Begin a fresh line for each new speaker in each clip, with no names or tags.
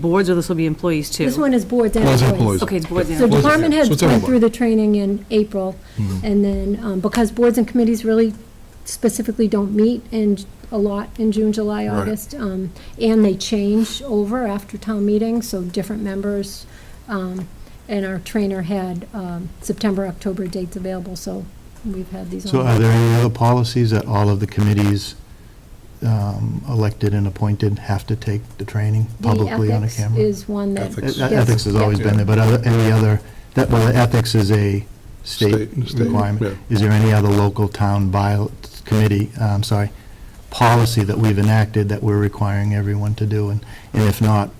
boards, or this will be employees too?
This one is boards and
Boards and
employees.
employees.
Okay, it's boards and
So
Boards and-
department
so
heads
it's
went
everybody. Mm-hmm.
through the training in April, and then, um, because boards and committees really specifically don't meet in, a lot in June, July,
Right.
August, um, and they change over after town meeting, so different members, um, and our trainer had um, September, October dates available, so we've had these
So
on.
are there any other policies that all of the committees um, elected and appointed have to take the training publicly on a
The
camera?
ethics is one that.
Ethics.
E-
yes,
Ethics has always
yeah.
been there, but other- any other, that, well, ethics is a state
State- state,
requirement.
yeah.
Is there any other local town by, committee, uh, I'm sorry, policy that we've enacted that we're requiring everyone to do? And and if not,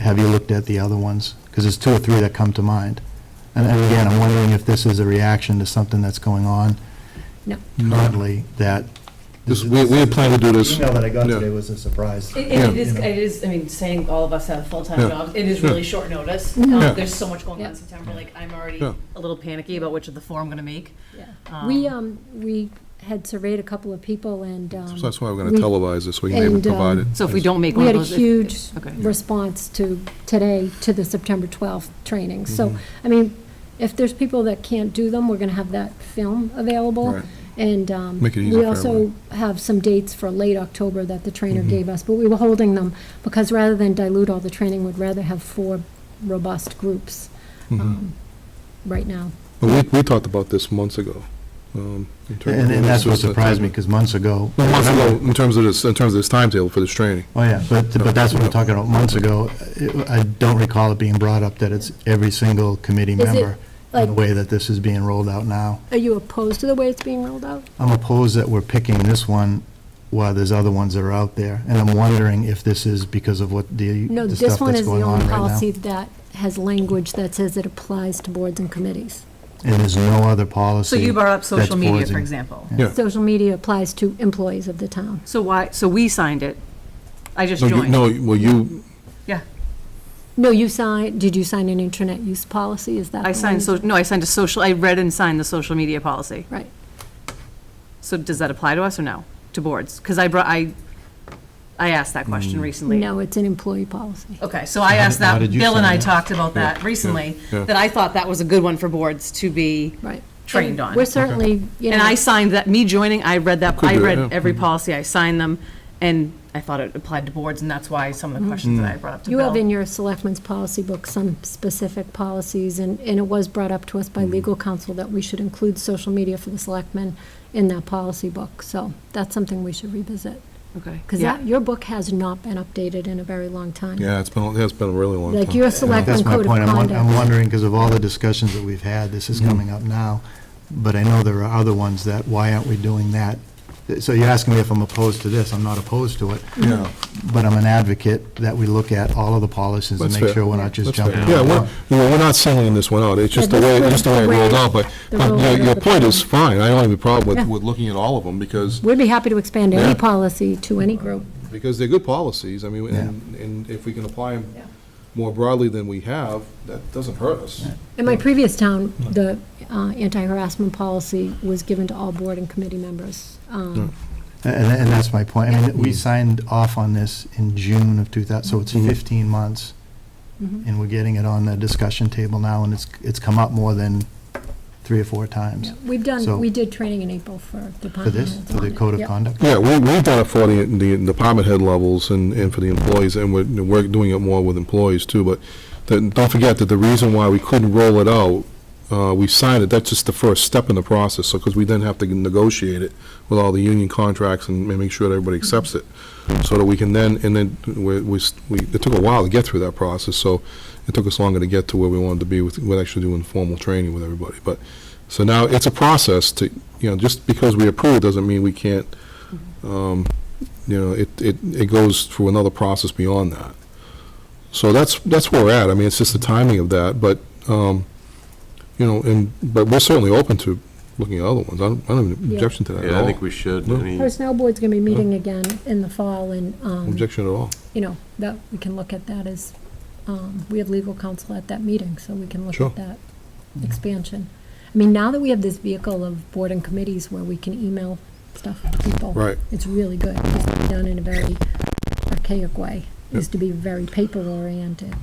have you looked at the other ones? Because there's two or three that come to mind. And and again, I'm wondering if this is a reaction to something that's going on
No.
currently that.
This, we, we had planned to do this.
Email that I got
Yeah.
today was a surprise.
It- It it
Yeah.
is, it is, I mean, saying all of us have full-time
Yeah.
jobs, it is
Sure.
really short notice.
Yeah.
Um, There's so much going on
Yeah.
in September, like, I'm already
Yeah.
a little panicky about which of the four I'm gonna make.
Yeah. We,
uh,
um, we had surveyed a couple of people, and um,
So that's why we're gonna
we-
televise this, we can name it
And, um,
provided.
So if we don't make
We
one of
had a
those. if-
huge
Okay.
response to, today, to the September 12th training. So,
Mm-hmm.
I mean, if there's people that can't do them, we're going to have that film available.
Right.
And um,
Make it easier
we
for
also
everyone.
have some dates for late October that the
Mm-hmm.
trainer gave us, but we were holding them because rather than dilute all the training, we'd rather have four robust groups um, right now.
Mm-hmm. But we, we talked about this months ago. um, in terms of-
And, and that's what surprised me, because months ago.
Well, Months ago, in terms of this, in terms of this timetable for this training.
Oh, yeah, but, but that's what I'm talking about, months ago, it- I don't recall it being brought up that it's every single committee
Is it,
member in the
like-
way that this is being rolled out now.
Are you opposed to the way it's being rolled out?
I'm opposed that we're picking this one while there's other ones that are out there, and I'm wondering if this is because of what the,
No,
the
this
stuff
one
that's
is the
going on
only
right
policy
now.
that has language that says it applies to boards and committees.
And there's no other
So
policy.
you brought up
that's
social media,
boards
for
and-
example.
Yeah.
Social media applies to employees of the town.
So why, so we signed it. I just
No, you-
joined.
No, well, you,
Yeah,
No, you signed, did you sign an internet use policy? Is that?
I
the
signed,
one?
so, no, I signed a social, I read and signed the social media policy.
Right.
So does that apply to us or no, to boards? Because I brought, I, I asked that
Mm.
question recently.
No, it's an employee policy.
Okay, so I asked
how
that,
did you
Bill and
sign
I
it?
talked about that recently,
yeah.
that I thought that was a good one for boards to be
Right.
trained
And
on.
We're certainly, you
And I
know,
signed that, me joining, I read that,
Could
I
do it,
read
yeah.
every policy, I signed them, and I thought it applied to boards, and that's why some of the questions that I brought up to
you have in
Bill.
your selectmen's policy book some specific policies, and, and it was brought up to us
Mm-hmm.
by legal counsel that we should include social media for the selectmen in that policy book. So that's something we should revisit.
Okay,
Because
yeah.
that, your book has not been updated in a very long time.
yeah, it's been, it's been a really long time.
Like your
Yeah,
selectmen
That's my
code of
point. I'm won- I'm
conduct. Mm-hmm.
wondering, because of all the discussions that we've had, this is coming up now, but I know there are other ones that, why aren't we doing that? So you're asking me if I'm opposed to this. I'm not opposed to it,
Yeah,
but I'm an advocate that we look at all of the policies and
That's
make
fair.
sure we're not just
that's fair.
jumping.
Yeah,
on
we're,
one.
well, we're not singling this one out, it's just the
Yeah,
way,
this
just the way it
was-
rolled out, but,
the
but your,
rollout
your
of the
point is
policy.
fine, I don't have a problem
Yeah.
with, with looking at all of them, because
We'd be happy to expand
Yeah.
any policy to any group.
because they're good policies, I mean,
Yeah.
and, and if we can apply them more broadly than we have, that doesn't hurt us.
In my previous town, the uh, anti-harassment policy was given to all board and committee members. Um,
And, and that's my point. I mean, we signed off on this in June of 2000, so
Mm-hmm.
it's 15 months, and we're getting it on the discussion table now, and it's, it's come up more than three or four times.
We've done,
So-
we did training in April for department.
For this,
heads
for
on
the
it.
code of
Yep.
conduct?
Yeah, we, we've done it for the, the department head levels and, and for the employees, and we're, we're doing it more with employees too, but then don't forget that the reason why we couldn't roll it out, uh, we signed it, that's just the first step in the process, so, because we then have to negotiate it with all the union contracts and make sure that everybody accepts it, so that we can then, and then we, we, we- it took a while to get through that process, so it took us longer to get to where we wanted to be with, with actually doing formal training with everybody, but, so now it's a process to, you know, just because we approve doesn't mean we can't um, you know, it, it, it goes through another process beyond that. So that's, that's where we're at. I mean, it's just the timing of that, but, um, you know, and, but we're certainly open to looking at other ones. I don't, I don't have an
Yeah.
objection to that at
Yeah, I
all.
think we should.
No.
I mean,
Personnel board's going to be meeting again in the fall, and, um,
Objection at all.
you know, that, we can look at that as, um, we have legal counsel at that meeting, so we can look
Sure.
at that
Mm-hmm.
expansion. I mean, now that we have this vehicle of board and committees where we can email stuff to people.
Right.
It's really good, it's done in a very archaic way. is to be very paper oriented.